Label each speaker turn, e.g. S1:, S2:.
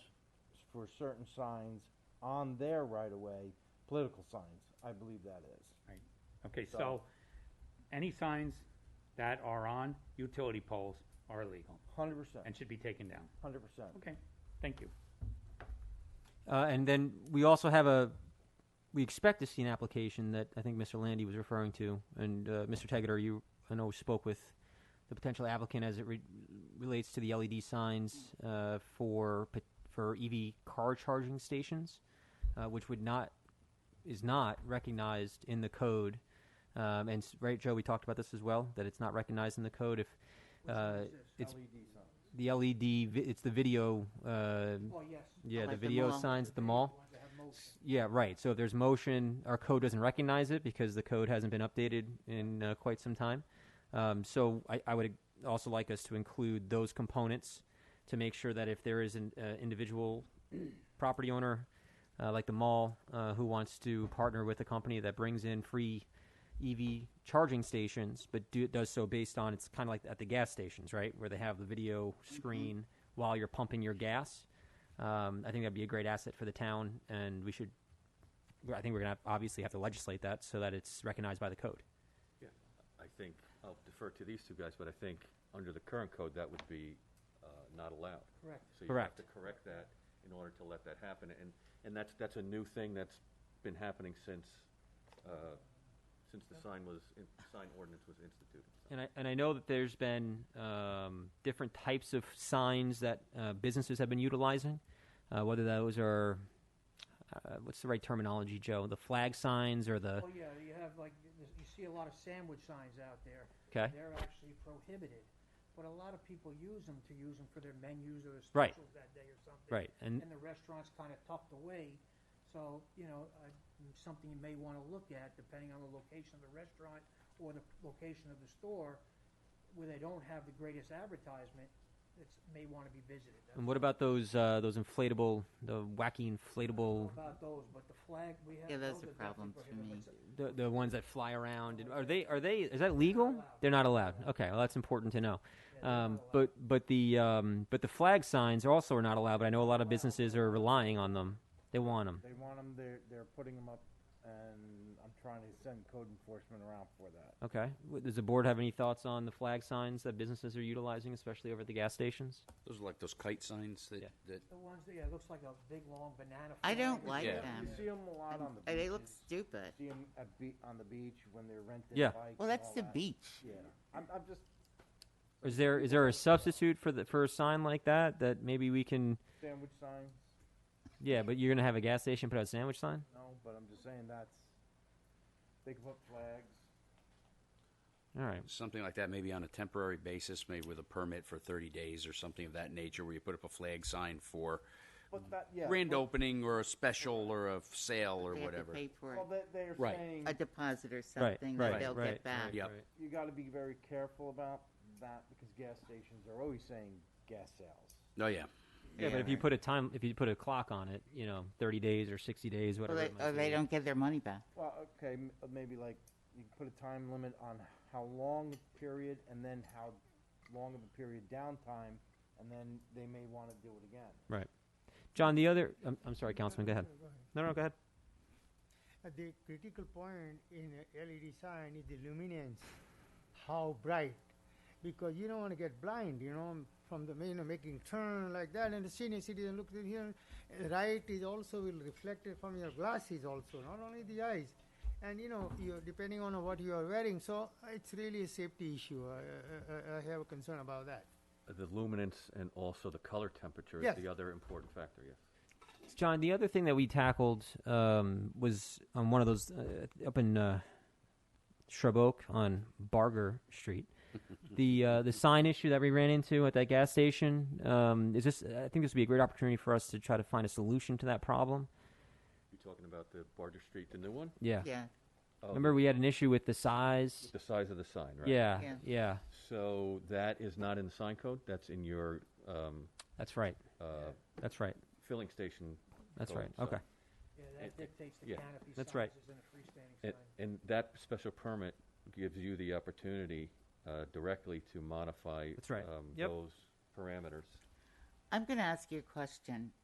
S1: for certain signs on their right-of-way, political signs, I believe that is.
S2: Right, okay,
S1: So-
S2: so, any signs that are on utility poles are illegal
S1: Hundred percent,
S2: and should be taken down.
S1: hundred percent.
S2: Okay, thank you.
S3: Uh, and then we also have a, we expect to see an application that I think Mr. Landy was referring to, and uh, Mr. Tegater, you I know spoke with the potential applicant as it re- relates to the LED signs uh, for pot- for EV car charging stations, uh, which would not is not recognized in the code. Um, and s- right, Joe, we talked about this as well that it's not recognized in the code if uh, it's
S1: E
S3: the LED. Vi- it's the video. Uh,
S4: Oh, yes.
S3: yeah, the
S5: Like the
S3: video
S5: mall.
S3: signs at the mall. S- Yeah, right. So if there's motion, our code doesn't recognize it because the code hasn't been updated in uh, quite some time. Um, so I, I would also like us to include those components to make sure that if there is an uh, individual property owner, uh, like the mall, uh, who wants to partner with a company that brings in free EV charging stations, but do, does so based on it's kind of like at the gas stations, right, where they have the video screen while you're pumping your gas. Um, I think that'd be a great asset for the town, and we should. I think we're gonna have, obviously have to legislate that so that it's recognized by the code.
S6: I think, I'll defer to these two guys, but I think under the current code, that would be uh, not allowed.
S4: Correct.
S6: So you have
S3: Correct.
S6: to correct that in order to let that happen. And, and that's, that's a new thing that's been happening since, uh, since the sign was, in- sign ordinance was instituted.
S3: And I and I know that there's been um, different types of signs that uh, businesses have been utilizing, uh, whether those are uh, what's the right terminology, Joe? The flag signs or the
S4: Oh, yeah, you have like, you see a lot of sandwich signs out there.
S3: okay,
S4: They're actually prohibited, but a lot of people use them to use them for their menus or their
S3: Right.
S4: specials that day or something.
S3: right? And
S4: And the restaurant's kind of tucked away, so, you know, uh, something you may want to look at, depending on the location of the restaurant or the location of the store, where they don't have the greatest advertisement, it's, may want to be visited. That's
S3: and what about those uh, those inflatable, the wacky inflatable,
S4: all about those, but the flag, we have.
S5: Yeah, those are
S4: definitely
S5: problems for
S4: prohibited, but
S5: me.
S4: it's-
S3: the, the ones that fly around? And are they are they is that legal? They're not allowed. Okay, well that's important to know. Um, but but the um, but the flag signs also are not allowed. But I know a lot of businesses are relying on them. They want them.
S1: They want them, they're, they're putting them up, and I'm trying to send code enforcement around for that.
S3: Okay. W- Does the board have any thoughts on the flag signs that businesses are utilizing, especially over at the gas stations?
S7: Those are like those kite signs that,
S3: Yeah.
S7: that,
S4: The ones that, yeah, it looks like a big, long banana.
S5: I
S4: flag.
S5: don't like
S7: Yeah.
S5: them.
S1: You see them a lot on the
S5: Uh,
S1: beaches.
S5: They look stupid.
S1: See them at be, on the beach when they're renting
S3: Yeah.
S1: bikes and
S5: Well, that's
S1: all
S5: the
S1: that.
S5: beach.
S1: Yeah, I'm, I'm just
S3: Or is there is there a substitute for the for a sign like that that maybe we can?
S1: sandwich signs,
S3: Yeah, but you're gonna have a gas station put out a sandwich sign.
S1: no, but I'm just saying that's, they can put flags.
S3: All right.
S7: something like that, maybe on a temporary basis, maybe with a permit for thirty days or something of that nature, where you put up a flag sign for
S1: But that, yeah.
S7: grand
S1: but-
S7: opening or a special or a sale or
S5: They have to
S7: whatever.
S5: pay for
S1: Well, they, they're
S7: Right.
S1: saying
S5: a deposit or
S3: Right.
S5: something
S3: right.
S5: that they'll
S3: right,
S5: get back.
S3: Right,
S7: Yep.
S3: right.
S1: you got to be very careful about that because gas stations are always saying gas sales.
S7: Oh, yeah.
S3: Yeah, but if you
S5: Right.
S3: put a time, if you put a clock on it, you know, thirty days or sixty days,
S5: Well,
S3: whatever.
S5: they,
S3: it might
S5: or they
S3: be.
S5: don't get their money back.
S1: Well, okay, m- uh, maybe like you put a time limit on how long a period and then how long of a period downtime, and then they may want to do it again.
S3: Right. John, the other, I'm, I'm sorry, Councilman, go ahead. No, no, go ahead.
S8: Uh, The critical point in a LED sign is the luminance, how bright, because you don't want to get blind, you know, from the you know making turn like that, and the senior citizen looks in here. uh, Light is also will reflect it from your glasses also, not only the eyes, and you know you depending on what you are wearing. So it's really a safety issue. I, I, I have a concern about that.
S6: The luminance and also the color temperature
S8: Yes.
S6: is the other important factor, yes.
S3: John, the other thing that we tackled um, was on one of those uh, up in uh, Shrub Oak on Barger Street. the uh, the sign issue that we ran into at that gas station um, is this. I think this would be a great opportunity for us to try to find a solution to that problem.
S6: You talking about the Barger Street, the new one?
S3: Yeah.
S5: Yeah.
S6: Oh,
S3: Remember, we had an issue with the size.
S6: The size of the sign, right?
S3: Yeah, yeah,
S5: Yeah.
S6: So that is not in the sign code, that's in your, um,
S3: That's right.
S6: uh,
S3: That's right.
S6: filling station.
S3: That's
S6: code,
S3: right.
S6: so-
S3: Okay.
S4: Yeah,
S6: It-
S4: that
S6: it-
S4: dictates the
S6: yeah.
S4: canopy
S3: That's right.
S4: sizes and the freestanding
S6: And,
S4: sign.
S6: and that special permit gives you the opportunity uh, directly to modify
S3: That's right.
S6: um,
S3: Yep.
S6: those parameters.
S5: I'm going to ask you a question.